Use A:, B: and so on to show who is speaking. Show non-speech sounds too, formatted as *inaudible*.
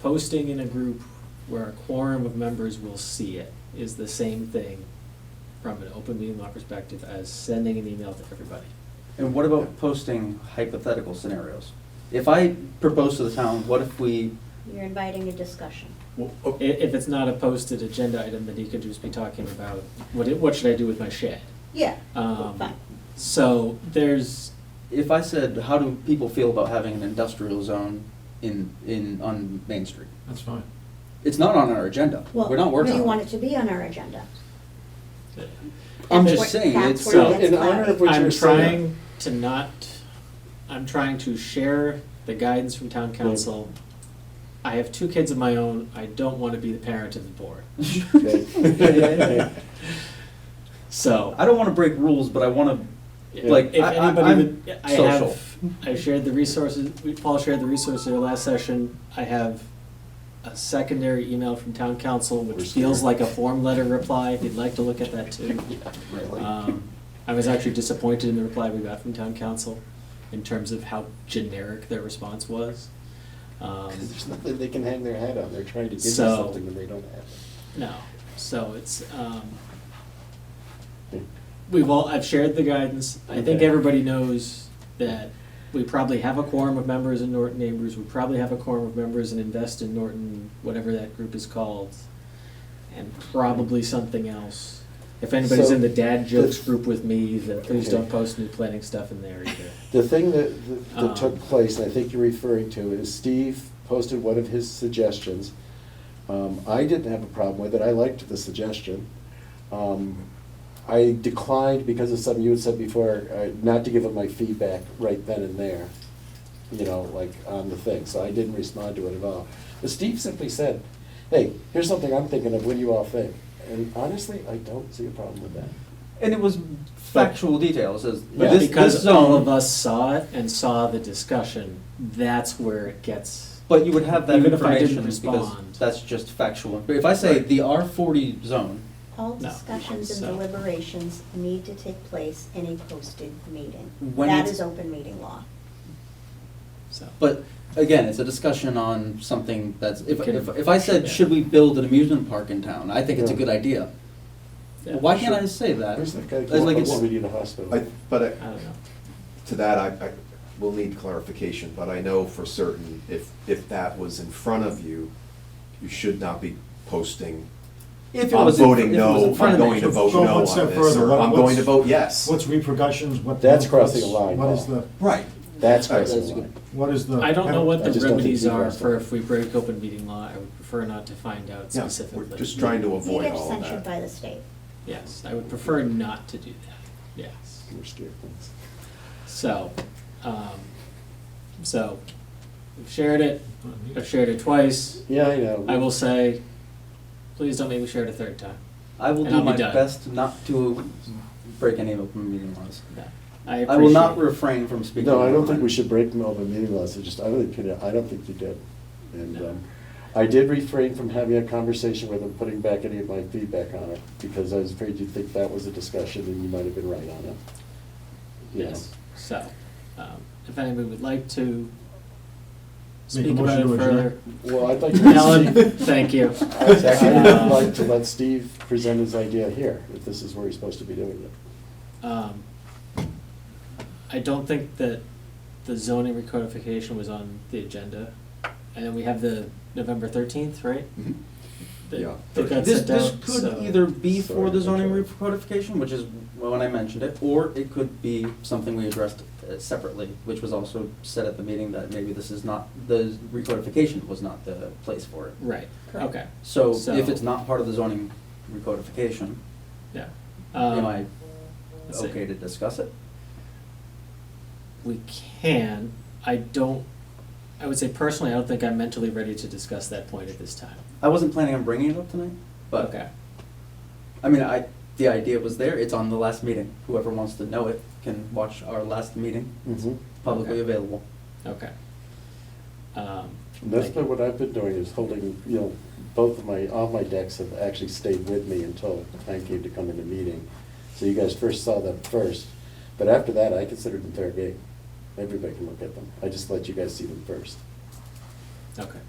A: posting in a group where a quorum of members will see it is the same thing from an open meeting law perspective as sending an email to everybody.
B: And what about posting hypothetical scenarios? If I propose to the town, what if we,
C: You're inviting a discussion.
A: I- If it's not a posted agenda item, then he could just be talking about, what, it- what should I do with my shed?
C: Yeah.
A: Um,
C: Fine.
A: So there's,
B: if I said, how do people feel about having an industrial zone in, in, on Main Street?
D: That's fine.
B: It's not on our agenda.
C: Well,
B: We're not working
C: Do you
B: on
C: want
B: it.
C: it to be on our agenda?
B: I'm
C: That's
B: just
C: where-
B: saying,
C: that's
B: it's,
C: where it
B: uh,
C: gets
E: in honor
C: cloudy.
E: of what
A: I'm
E: you're saying.
A: trying to not, I'm trying to share the guidance from town council. I have two kids of my own, I don't want to be the parent of the board, *laughs*
E: Okay.
A: so.
B: I don't wanna break rules, but I wanna,
A: if-
B: like,
A: if
B: I, I,
A: anybody
B: I'm
A: would- I have-
B: social.
A: I shared the resources, we- Paul shared the resources in our last session, I have a secondary email from town council,
E: We're
A: which feels like
E: scared.
A: a form letter reply, if you'd like to look at that
B: *laughs*
A: too. Um, I was actually disappointed in the reply we got from town council in terms of how generic their response was. Um,
E: Because there's nothing they can hang their hat on, they're trying to give you
A: So-
E: something and they don't have it.
A: No, so it's, um, we've all, I've shared the guidance. I think
E: Okay.
A: everybody knows that we probably have a quorum of members in Norton Neighbors, we probably have a quorum of members in Invest in Norton, whatever that group is called, and probably something else. If anybody's
E: So,
A: in the dad jokes
E: the-
A: group with me, then please
E: Okay.
A: don't post new planning stuff in there
B: *laughs*
A: either.
E: The thing that, that-
A: Um,
E: that took place, and I think you're referring to, is Steve posted one of his suggestions. Um, I didn't have a problem with it, I liked the suggestion. Um, I declined because of something you had said before, uh, not to give him my feedback right then and there, you know, like on the thing, so I didn't respond to it at all. But Steve simply said, hey, here's something I'm thinking of, what do you all think? And honestly, I don't see a problem with that.
B: And it was factual details, as,
A: But
B: this, this
A: because all of
B: zone,
A: us saw it and saw the discussion, that's where it gets.
B: but you would have that
A: Even if I didn't
B: information, because
A: respond.
B: that's just factual. But if I say
A: Right.
B: the R forty zone,
C: All
A: No.
C: discussions and
A: So-
C: deliberations need to take place in a posted meeting.
B: When
C: That
B: it's-
C: is open meeting law.
A: So,
B: But again, it's a discussion on something that's, if,
A: Can-
B: if, if I said,
A: yeah.
B: should we build an amusement park in town? I think it's a
E: Yeah.
B: good idea.
A: yeah,
B: Well, Why can't I
A: sure.
B: say that?
E: Where's that guy,
B: Uh, It's like
E: who
B: it's-
E: wants me in the hospital?
F: I, but
A: I
F: I-
A: don't know.
F: to that, I, I will need clarification, but I know for certain, if, if that was in front of you, you should not be posting,
B: If it
F: I'm
B: was in-
F: voting
B: if it was in
F: no,
B: front
F: I'm
B: of me,
F: going to vote
G: Go
F: no
G: one
F: on
G: step
F: this,
G: further.
F: or
G: What-
F: I'm going
G: what's-
F: to vote yes.
G: What's repercussions, what?
E: That's
G: what's-
E: crossing a line,
G: What is
E: Paul.
G: the,
F: Right.
E: That's
F: That's
E: crossing the
B: good.
E: line.
G: what is the?
A: I don't know what
E: I
A: the
E: just don't think
A: remedies
E: people
A: are
E: understand.
A: for if we break open meeting law, I would prefer not to find out
F: Yeah,
A: specifically.
F: we're just trying to
C: You
F: avoid
C: get
F: all of
C: censured by the
F: that.
C: state.
A: Yes, I would prefer not to do that, yes.
E: We're scared things.
A: So, um, so, I've shared it, I've shared it twice,
E: Yeah, I know.
A: I will say, please don't make me share it a third time.
B: I will
A: And
B: do
A: I'll be
B: my
A: done.
B: best not to break any open meeting laws.
A: No, I
B: I will not
A: appreciate-
B: refrain from speaking.
E: No, I
B: my
E: don't think
B: mind.
E: we should break them open meeting laws, I just, I really pity, I don't think you did. And,
A: No.
E: um, I did refrain from having a conversation with him, putting back any of my feedback on it, because I was afraid you'd think that was a discussion and you might have been right on it. You know.
A: Yes, so, um, if anybody would like to
G: Make a
A: speak about
G: motion
A: it
G: to adjourn.
A: further.
E: Well, I'd like to.
A: Alan, *laughs* thank you.
E: I'd
A: Um,
E: like to let Steve present his idea here, if this is where he's supposed to be doing it.
A: Um, I don't think that the zoning recodification was on the agenda. And then we have the November thirteenth, right?
B: Mm-hmm.
F: Mhm.
A: That-
F: Yeah.
A: that got
B: This,
A: sent
B: this
A: out,
B: could
A: so-
B: either be
E: Sorry,
B: for the
E: I'm
B: zoning
E: sorry.
B: recodification, which is when I mentioned it, or it could be something we addressed uh, separately, which was also said at the meeting that maybe this is not, the recodification was not the place for it.
A: Right, okay,
B: So
A: So-
B: if it's not part of the zoning recodification,
A: yeah.
B: am
A: Um,
B: I
A: let's see.
B: okay to discuss it?
A: We can, I don't, I would say personally, I don't think I'm mentally ready to discuss that point at this time.
B: I wasn't planning on bringing it up tonight, but,
A: Okay,
B: I mean, I, the idea was there, it's on the last meeting. Whoever wants to know it can watch our last meeting,
E: Mm-hmm.
B: publicly
A: Okay.
B: available.
A: okay. Um,
E: And That's
A: thank you.
E: been what I've been doing, is holding, you know, both of my, all my decks have actually stayed with me until the time came to come into meeting. So you guys first saw them first, but after that, I considered them fair game. Everybody can look at them. I just let you guys see them first.
A: Okay.